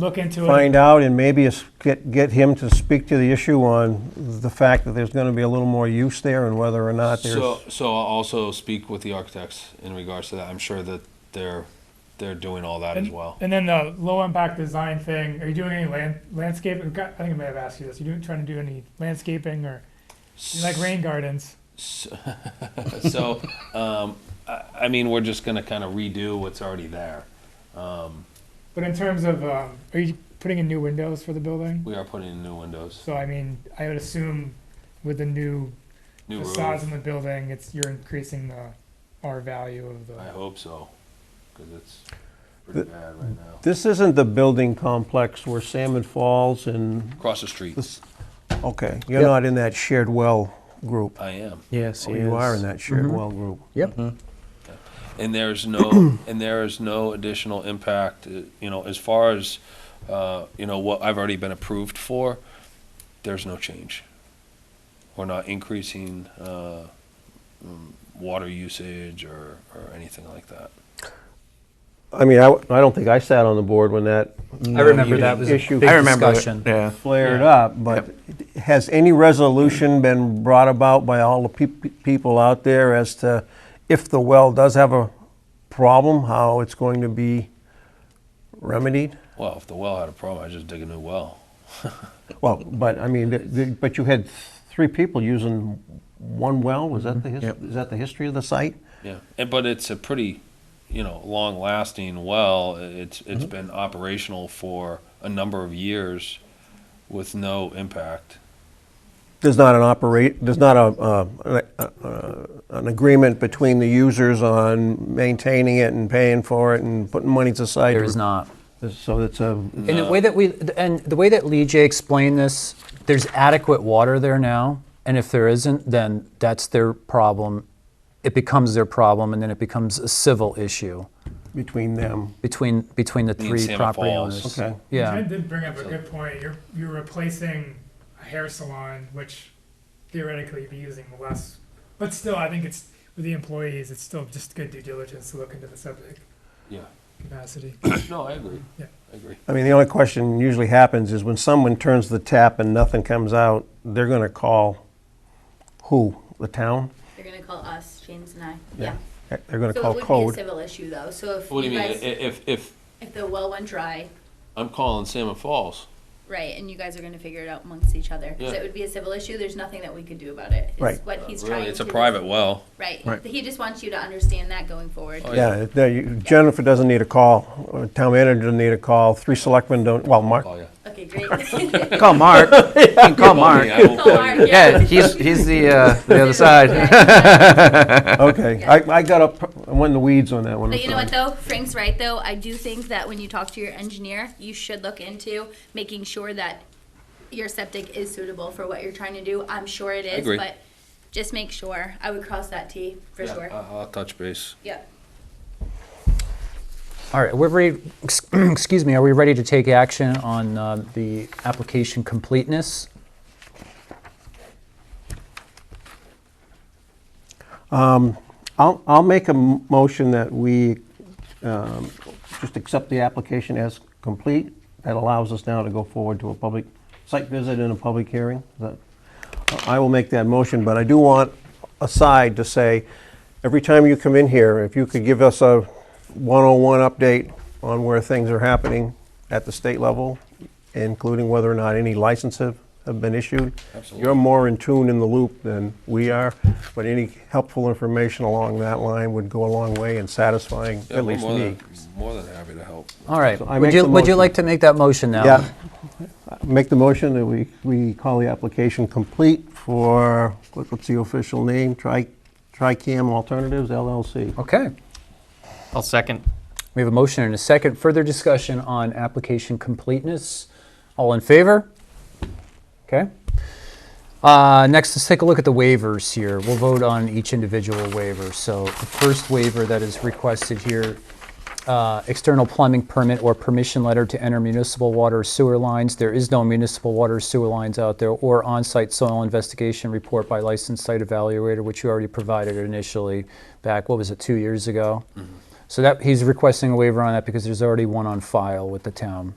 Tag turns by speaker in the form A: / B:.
A: look into it.
B: find out and maybe it's- get, get him to speak to the issue on the fact that there's gonna be a little more use there and whether or not there's.
C: So, so I'll also speak with the architects in regards to that. I'm sure that they're, they're doing all that as well.
A: And then the low impact design thing, are you doing any land, landscape? I've got- I think I may have asked you this. Are you doing, trying to do any landscaping or you like rain gardens?
C: So, so, um, I, I mean, we're just gonna kind of redo what's already there. Um,
A: But in terms of, um, are you putting in new windows for the building?
C: we are putting in new windows,
A: So I mean, I would assume with the new
C: new
A: facades
C: roof.
A: in the building, it's you're increasing the R value of the.
C: I hope so, cause it's pretty bad right now.
B: This isn't the building complex where Salmon Falls and,
C: Across the street.
B: this, okay, you're
D: Yep.
B: not in that shared well group.
C: I am.
D: Yes,
B: Oh,
D: he
B: You are
D: is.
B: in that Mm-hmm. shared
D: Mhm.
B: well group.
D: Yep.
C: And there's no, and there is no additional impact, uh, you know, as far as, uh, you know, what I've already been approved for, there's no change. We're not increasing, uh, mm, water usage or, or anything like that.
B: I mean, I, w- I don't think I sat on the board when that
D: I remember
B: you
D: that
B: did.
D: was a
B: Issue-
D: big
B: I
E: remember it,
D: discussion.
E: Yeah.
B: flared up, but has any resolution been brought about by all the peop- people out there as to if the well does have a problem, how it's going to be remedied?
C: Well, if the well had a problem, I'd just dig a new well.
B: Well, but I mean, th- th- but you had three people using one well, was that the, his-
E: Mm-hmm. Yep.
B: is that the history of the site?
C: Yeah, and, but it's a pretty, you know, long-lasting well. It's it's been operational for a number of years with no impact.
B: There's not an operate, there's not a, uh, an- uh, uh, an agreement between the users on maintaining it and paying for it and putting money to side.
D: There is not.
B: So it's a,
D: And the way that we and the way that Lee J explained this, there's adequate water there now, and if there isn't, then that's their problem. It becomes their problem, and then it becomes a civil issue
B: between them.
D: between between the
C: Me and
D: three
C: Salmon
D: property
C: Falls.
D: owners.
B: Okay.
D: Yeah.
A: Ted did bring up a good point. You're you're replacing a hair salon, which theoretically you'd be using less, but still, I think it's with the employees. It's still just good due diligence to look into the subject
C: Yeah.
A: capacity.
C: No, I agree.
A: Yeah.
C: I agree.
B: I mean, the only question usually happens is when someone turns the tap and nothing comes out, they're going to call who? The town?
F: They're gonna call us, James and I,
B: Yeah.
F: yeah.
B: They're going to
F: So it
B: call
F: would be a
B: code.
F: civil issue though, so if
C: What do
F: you
C: you mean?
F: guys,
C: If if
F: if the well went dry,
C: I'm calling Salmon Falls,
F: right, and you guys are gonna figure it out amongst each other. Cause
C: Yeah.
F: it would be a civil issue, there's nothing that we could do about it. It's
B: Right.
F: What he's trying
C: really,
F: to.
C: it's a private well.
F: Right, he just wants you to understand that going forward.
C: Oh,
B: Yeah, no, you- Jennifer doesn't need a call. or Town manager doesn't need a call. Three selectmen don't, well, Mark,
C: Oh yeah.
F: Okay, great. Call
E: Call Mark. You can call
C: Call me,
E: Mark.
C: I will call you.
F: Mark,
E: Yeah, he's he's the uh, the other side.
B: okay. I I got up, I went in the weeds on that one. I'm
F: But you know
B: sorry.
F: what though, Frank's right though. I do think that when you talk to your engineer, you should look into making sure that your septic is suitable for what you're trying to do. I'm sure it is,
C: agree.
F: but just make sure. I would cross that T for
C: Yeah, uh,
F: sure.
C: I- I'll touch base.
F: yep.
D: All right. We're ready. Excuse me. Are we ready to take action on uh, the application completeness?
B: I'll, I'll make a m- motion that we um, just accept the application as complete. That allows us now to go forward to a public site visit and a public hearing. Is that- I will make that motion, but I do want aside to say, every time you come in here, if you could give us a 101 update on where things are happening at the state level, including whether or not any licenses have been issued.
C: Absolutely.
B: You're more in tune in the loop than we are, but any helpful information along that line would go a long way in satisfying
C: Yeah,
B: at
C: we're
B: least
C: more
B: me.
C: than- More than happy to help.
D: All right.
B: So I
D: would
B: make
D: you
B: the
D: would you
B: motion.
D: like to make that motion now?
B: Yeah. Make the motion that we, we call the application complete for, what- what's the official name? Tri, TriCam Alternatives LLC.
D: Okay.
E: I'll second.
D: We have a motion and a second. Further discussion on application completeness. All in favor? Okay. Uh, next, let's take a look at the waivers here. We'll vote on each individual waiver. So the first waiver that is requested here, uh, external plumbing permit or permission letter to enter municipal water or sewer lines. There is no municipal water or sewer lines out there or on-site soil investigation report by licensed site evaluator, which you already provided initially back, what was it, two years ago? So that, he's requesting a waiver on that because there's already one on file with the town.